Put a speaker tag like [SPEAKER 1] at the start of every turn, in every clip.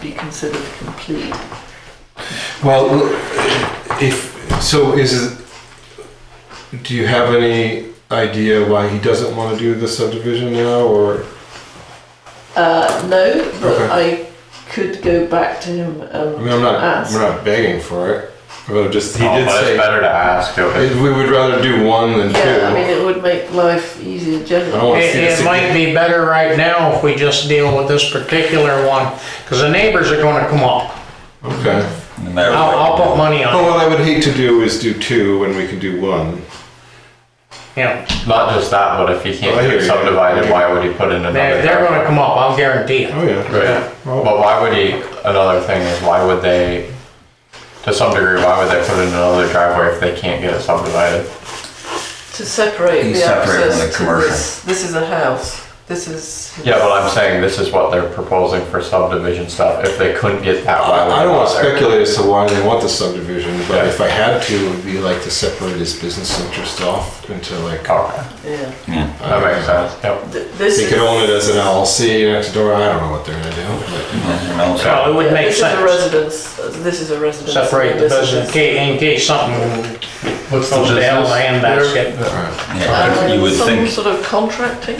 [SPEAKER 1] be considered complete.
[SPEAKER 2] Well, if, so is it, do you have any idea why he doesn't want to do the subdivision now, or?
[SPEAKER 1] Uh, no, but
[SPEAKER 2] Okay.
[SPEAKER 1] I could go back to him um,
[SPEAKER 2] I mean,
[SPEAKER 1] and
[SPEAKER 2] I'm not,
[SPEAKER 1] ask.
[SPEAKER 2] we're not begging for it, but just, he
[SPEAKER 3] Oh,
[SPEAKER 2] did
[SPEAKER 3] but it's
[SPEAKER 2] say,
[SPEAKER 3] better to ask. Okay.
[SPEAKER 2] we would rather do one than
[SPEAKER 1] Yeah, I mean,
[SPEAKER 2] two.
[SPEAKER 1] it would make life easier
[SPEAKER 2] I don't
[SPEAKER 1] generally.
[SPEAKER 2] want to
[SPEAKER 4] It,
[SPEAKER 2] see this
[SPEAKER 4] it might
[SPEAKER 2] again.
[SPEAKER 4] be better right now if we just deal with this particular one, because the neighbors are gonna come up.
[SPEAKER 2] Okay. Oh,
[SPEAKER 3] No matter
[SPEAKER 4] I'll, I'll
[SPEAKER 3] what.
[SPEAKER 4] put money
[SPEAKER 2] Well,
[SPEAKER 4] on it,
[SPEAKER 2] what I would hate to do is do two when we can do one.
[SPEAKER 4] yeah.
[SPEAKER 3] Not just that, but if he
[SPEAKER 2] Oh, I
[SPEAKER 3] can't
[SPEAKER 2] hear
[SPEAKER 3] get
[SPEAKER 2] you.
[SPEAKER 3] subdivided, why would he put in another?
[SPEAKER 4] They're, they're gonna come up, I'll guarantee it.
[SPEAKER 2] Oh, yeah.
[SPEAKER 3] Right. But why would he? Another thing is, why would they? To some degree, why would they put in another driveway if they can't get it subdivided?
[SPEAKER 1] To separate the
[SPEAKER 5] He's separating the
[SPEAKER 1] access to
[SPEAKER 5] commercial.
[SPEAKER 1] this, this is a house, this is.
[SPEAKER 3] Yeah, but I'm saying this is what they're proposing for subdivision stuff. If they couldn't get that, why would
[SPEAKER 2] I I don't want to
[SPEAKER 3] they bother?
[SPEAKER 2] speculate as to why they want the subdivision, but
[SPEAKER 3] Yeah.
[SPEAKER 2] if I had to, it would be like to separate his business interest off into like.
[SPEAKER 3] Okay,
[SPEAKER 1] Yeah,
[SPEAKER 3] that makes sense. Yep.
[SPEAKER 1] Th- this
[SPEAKER 2] They
[SPEAKER 1] is.
[SPEAKER 2] could own it as an LLC next door, I don't know what they're gonna do, but
[SPEAKER 5] Nothing else.
[SPEAKER 4] So it
[SPEAKER 1] yeah,
[SPEAKER 4] would make sense,
[SPEAKER 1] This is a residence, this is a residence.
[SPEAKER 4] separate the
[SPEAKER 1] This is-
[SPEAKER 4] business, in case, in case something goes down the handbasket.
[SPEAKER 2] alright.
[SPEAKER 5] Yeah,
[SPEAKER 1] Uh,
[SPEAKER 5] You would
[SPEAKER 1] Some
[SPEAKER 5] think,
[SPEAKER 1] sort of contracting?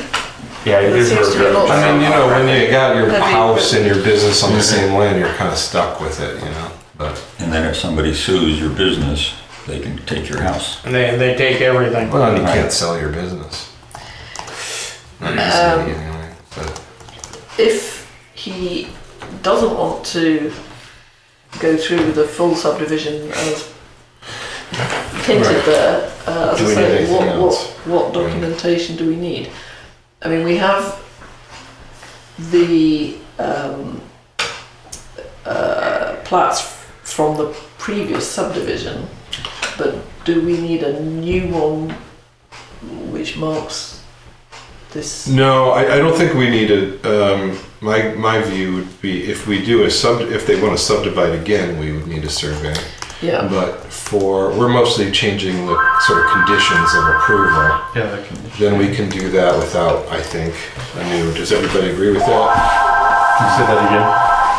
[SPEAKER 3] Yeah, you
[SPEAKER 1] There
[SPEAKER 3] did
[SPEAKER 1] seems to be
[SPEAKER 3] reserve
[SPEAKER 1] a lot-
[SPEAKER 3] some-
[SPEAKER 2] I mean, you know, when you got your
[SPEAKER 1] That'd be-
[SPEAKER 2] house and your business on the same land, you're kinda stuck with it, you know, but.
[SPEAKER 5] and then if somebody sues your business, they can take your house.
[SPEAKER 4] And They, they take everything.
[SPEAKER 2] Well, and you
[SPEAKER 5] Right.
[SPEAKER 2] can't sell your business. Not
[SPEAKER 1] Um,
[SPEAKER 2] easily, anyway, but-
[SPEAKER 1] If he doesn't want to go through with the full subdivision as hinted
[SPEAKER 2] Right.
[SPEAKER 1] there, uh, as
[SPEAKER 2] Do
[SPEAKER 1] I
[SPEAKER 2] we need
[SPEAKER 1] say,
[SPEAKER 2] anything
[SPEAKER 1] what,
[SPEAKER 2] else? Mm.
[SPEAKER 1] what, what documentation do we need? I mean, we have the um, uh, plats from the previous subdivision, but do we need a new one which marks this?
[SPEAKER 2] No, I, I don't think we need a, um, my, my view would be if we do a sub, if they want to subdivide again, we would need a survey.
[SPEAKER 1] Yeah.
[SPEAKER 2] But for, we're mostly changing the sort of conditions of approval.
[SPEAKER 3] Yeah, they can-
[SPEAKER 2] Then we can do that without, I think, I mean, does everybody agree with that?
[SPEAKER 3] Say that again.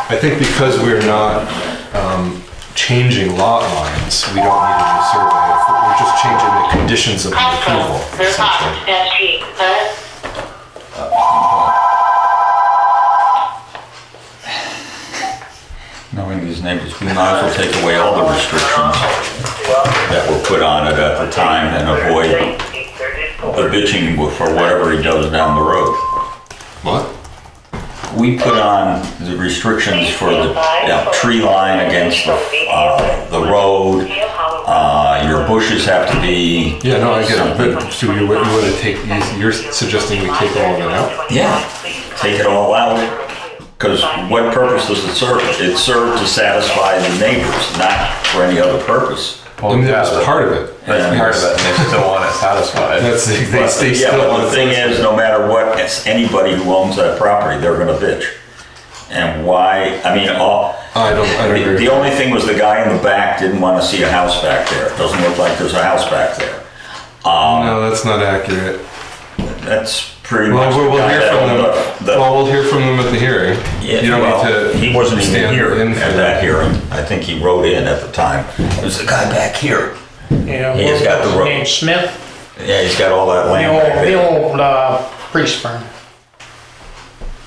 [SPEAKER 2] I think because we're not, um, changing lot lines, we don't need a new survey. We're just changing the conditions of the approval.
[SPEAKER 6] Also, the
[SPEAKER 2] essentially.
[SPEAKER 6] box that she, the
[SPEAKER 5] Knowing these neighbors, we might as well take away all the restrictions that were put on it at the time and avoid the bitching for whatever he does down the road.
[SPEAKER 2] What?
[SPEAKER 5] We put on the restrictions for the yeah, tree line against the, uh, the road. Uh, your bushes have to be,
[SPEAKER 2] Yeah, no, I get it, but so you, you want to take, you- you're suggesting we take all of it out?
[SPEAKER 5] yeah, take it all out. Because what purpose does it serve? It served to satisfy the neighbors, not for any other purpose.
[SPEAKER 3] Well,
[SPEAKER 2] I mean,
[SPEAKER 3] yeah,
[SPEAKER 2] that was part of it.
[SPEAKER 3] That's part of it. and They still want it satisfied.
[SPEAKER 2] That's, they, they
[SPEAKER 5] But-
[SPEAKER 2] they
[SPEAKER 5] Yeah,
[SPEAKER 2] still
[SPEAKER 5] but
[SPEAKER 2] want
[SPEAKER 5] the thing is, no matter what, it's anybody who owns that property, they're gonna bitch. And why, I mean, all,
[SPEAKER 2] I don't, I don't
[SPEAKER 5] the
[SPEAKER 2] agree.
[SPEAKER 5] the only thing was the guy in the back didn't wanna see a house back there. It Doesn't look like there's a house back there.
[SPEAKER 2] No, that's not accurate.
[SPEAKER 5] That's pretty much.
[SPEAKER 2] Well, we'll,
[SPEAKER 5] the
[SPEAKER 2] we'll
[SPEAKER 5] guy
[SPEAKER 2] hear
[SPEAKER 5] that
[SPEAKER 2] from
[SPEAKER 5] owned
[SPEAKER 2] them,
[SPEAKER 5] the- the-
[SPEAKER 2] well, we'll hear from them at the hearing.
[SPEAKER 5] Yeah,
[SPEAKER 2] You don't need
[SPEAKER 5] well,
[SPEAKER 2] to.
[SPEAKER 5] He wasn't even
[SPEAKER 2] stand
[SPEAKER 5] here
[SPEAKER 2] in for
[SPEAKER 5] at that hearing. I think he wrote in at the time. It was the guy back here.
[SPEAKER 4] Yeah,
[SPEAKER 5] He has got the rope.
[SPEAKER 4] Named Smith,
[SPEAKER 5] Yeah, he's got all that
[SPEAKER 4] the
[SPEAKER 5] land back
[SPEAKER 4] old, the
[SPEAKER 5] there.
[SPEAKER 4] old, uh, priest firm.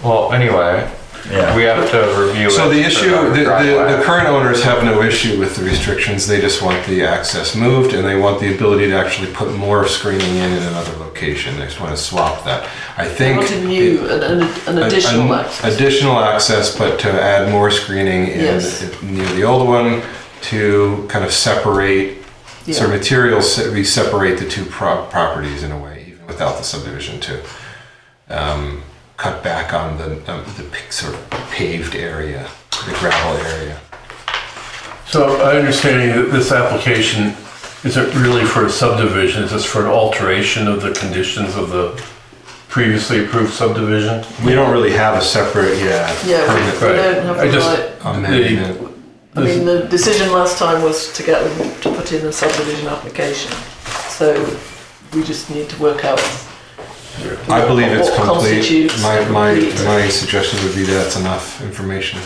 [SPEAKER 3] Well, anyway,
[SPEAKER 5] Yeah.
[SPEAKER 3] we have to review.
[SPEAKER 2] So
[SPEAKER 3] it
[SPEAKER 2] the
[SPEAKER 3] for
[SPEAKER 2] issue, the, the,
[SPEAKER 3] driveway.
[SPEAKER 2] the current owners have no issue with the restrictions, they just want the access moved and they want the ability to actually put more screening in in another location, they just wanna swap that. I think.
[SPEAKER 1] Not a new, an, an- an
[SPEAKER 2] an-
[SPEAKER 1] additional
[SPEAKER 2] an
[SPEAKER 1] access.
[SPEAKER 2] Additional access, but to add more screening in,
[SPEAKER 1] Yes.
[SPEAKER 2] near the old one to kind of separate, so
[SPEAKER 1] Yeah.
[SPEAKER 2] materials, se- we separate the two pro- properties in a way, even without the subdivision to um, cut back on the, um, the p- sort of paved area, the gravel area.
[SPEAKER 7] So I understanding that this application isn't really for a subdivision, it's just for an alteration of the conditions of the previously approved subdivision?
[SPEAKER 2] We don't really have a separate, yeah.
[SPEAKER 1] Yeah, we-
[SPEAKER 2] permit
[SPEAKER 1] we don't have
[SPEAKER 7] I
[SPEAKER 1] the
[SPEAKER 7] just-
[SPEAKER 1] right,
[SPEAKER 2] Um, Amendment.
[SPEAKER 1] I mean, the decision last time was to get them to put in a subdivision application. So we just need to work out.
[SPEAKER 2] I believe it's
[SPEAKER 1] What
[SPEAKER 2] complete.
[SPEAKER 1] constitutes
[SPEAKER 2] My, my,
[SPEAKER 1] complete?
[SPEAKER 2] my suggestion would be that's enough information.